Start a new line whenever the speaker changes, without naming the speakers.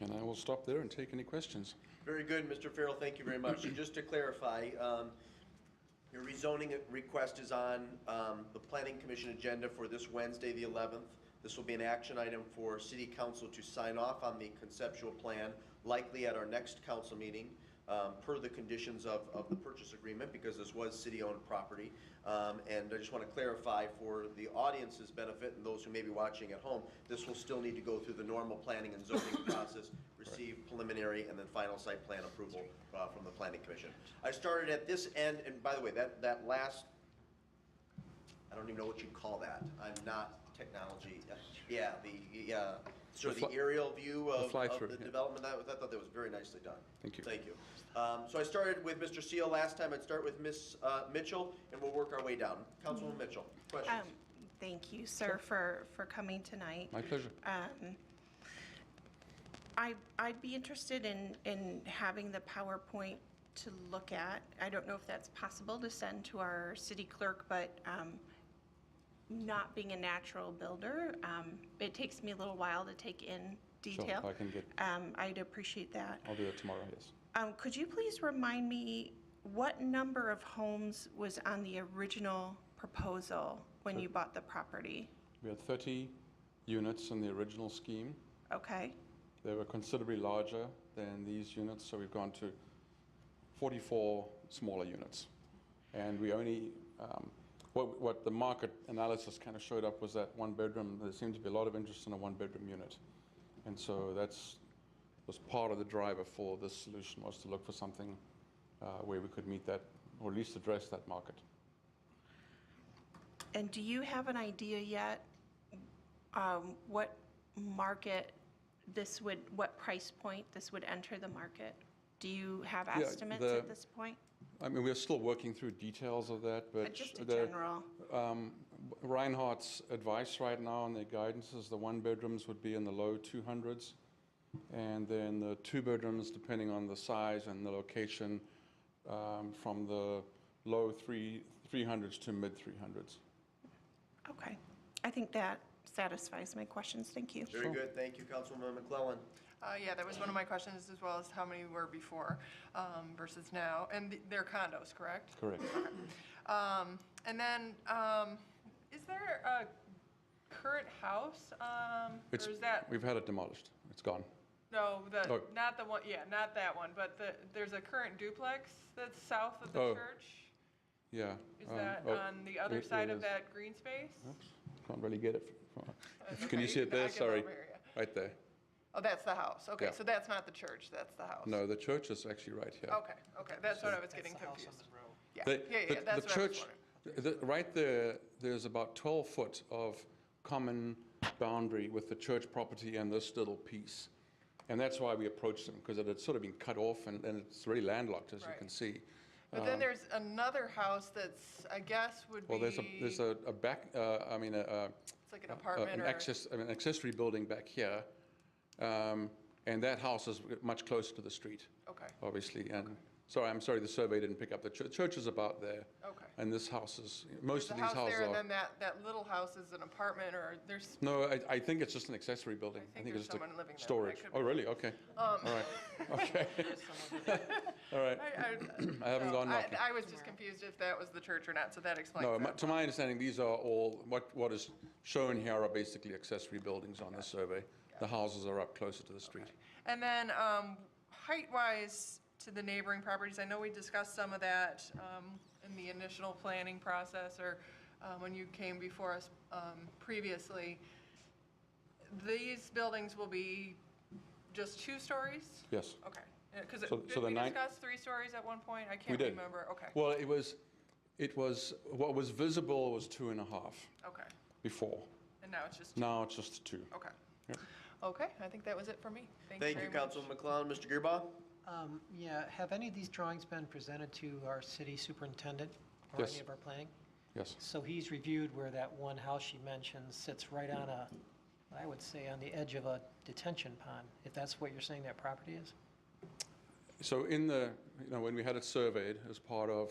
And I will stop there and take any questions.
Very good, Mr. Farrell, thank you very much. So just to clarify, um, your rezoning request is on um, the Planning Commission agenda for this Wednesday, the 11th. This will be an action item for City Council to sign off on the conceptual plan, likely at our next council meeting, um, per the conditions of, of the purchase agreement, because this was city-owned property. Um, And I just want to clarify for the audience's benefit and those who may be watching at home, this will still need to go through the normal planning and zoning process, receive preliminary and then final site plan approval uh, from the Planning Commission. I started at this end, and by the way, that, that last, I don't even know what you'd call that. I'm not technology, yeah, the, yeah,
The
sort of the
fly-
aerial view of of
fly-through,
the
yeah.
development. That was- I thought that was very nicely done.
Thank you.
Thank you. Um, So I started with Mr. Seal last time. I'd start with Ms. uh, Mitchell, and we'll work our way down. Councilwoman Mitchell, questions?
Um, Thank you, sir, for, for coming tonight.
My pleasure.
Um, I, I'd be interested in, in having the PowerPoint to look at. I don't know if that's possible to send to our city clerk, but um, not being a natural builder, um, it takes me a little while to take in detail.
I can get-
Um, I'd appreciate that.
I'll do that tomorrow, yes.
Um, Could you please remind me what number of homes was on the original proposal when you bought the property?
We had 30 units in the original scheme.
Okay,
They were considerably larger than these units, so we've gone to 44 smaller units. And we only, um, what, what the market analysis kind of showed up was that one bedroom, there seemed to be a lot of interest in a one bedroom unit. And so that's, was part of the driver for this solution was to look for something uh, where we could meet that, or at least address that market.
and do you have an idea yet um, what market this would, what price point this would enter the market? Do you have estimates
the-
at this point?
I mean, we're still working through details of that, but.
Uh, Just a
the-
general,
Um, Reinhardt's advice right now and their guidance is the one bedrooms would be in the low 200s. And then the two bedrooms, depending on the size and the location, um, from the low three, 300s to mid 300s.
okay. I think that satisfies my questions, thank you.
Very good, thank you, Councilwoman McClellan.
Uh, yeah, that was one of my questions, as well as how many were before, um, versus now, and th- they're condos, correct?
Correct.
Um, and then, um, is there a current house, um,
It's-
or is that,
We've had it demolished. It's gone.
no, the,
Oh.
not the one, yeah, not that one, but the, there's a current duplex that's south of
Oh.
the church?
Yeah.
Is
um,
that
oh,
on the other
it-
side
it
of
is.
that green space?
Oops, Can't really get it. from-
That's
Can you
okay,
see it
uh, I
there?
can
Sorry.
over here.
Right there.
Oh, that's the house, okay,
Yeah.
so that's not the church, that's the house?
No, the church is actually right here.
Okay, okay, that's what I was getting confused. Yeah,
The-
yeah, yeah,
the- the
that's what I was
church-
wondering.
the- Right there, there's about 12 foot of common boundary with the church property and this little piece. And that's why we approached them, because it had sort of been cut off and and it's really landlocked, as you
Right.
can see.
But then there's another house that's, I guess, would be,
Um, Well, there's a, there's
it's
a a back, uh, I mean, a- a.
like an
a- a-
apartment
an
or,
access- An accessory building back here. Um, And that house is much closer to the street,
okay,
obviously. And, sorry, I'm sorry, the survey didn't pick up. The chur- church is about there.
okay.
And this house is,
There's
most
a
of these
house
houses
there, and
are.
then that, that little house is an apartment, or there's,
No, I, I think it's just an accessory building.
I think
it's
there's
just a
someone living there, but I Um,
Storage.
could
Oh,
be
really? Okay. All right. Okay. All right.
I, I.
I haven't
so
gone
I-
knocking.
I was just confused if that was the church or not, so that explains
No, my-
that.
to my understanding, these are all, what, what is shown here are basically accessory buildings on the survey. The houses are up closer to the street.
And then, um, height-wise to the neighboring properties, I know we discussed some of that, um, in the initial planning process or, uh, when you came before us, um, previously. These buildings will be just two stories?
Yes.
Okay, because
So- so
did
the
we
nine-
discuss three stories at one point? I
We
can't
did.
remember. Okay,
Well, it was, it was, what was visible was two and a half
okay.
before.
And now it's just,
Now it's just two.
okay.
Yep.
Okay, I think that was it for me. Thank you
Thank you,
very much.
Councilwoman McClellan. Mr. Gearbaugh?
Um, Yeah, have any of these drawings been presented to our city superintendent or
Yes.
any of our planning?
Yes.
So he's reviewed where that one house she mentioned sits right on a, I would say, on the edge of a detention pond, if that's what you're saying that property is?
So in the, you know, when we had it surveyed as part of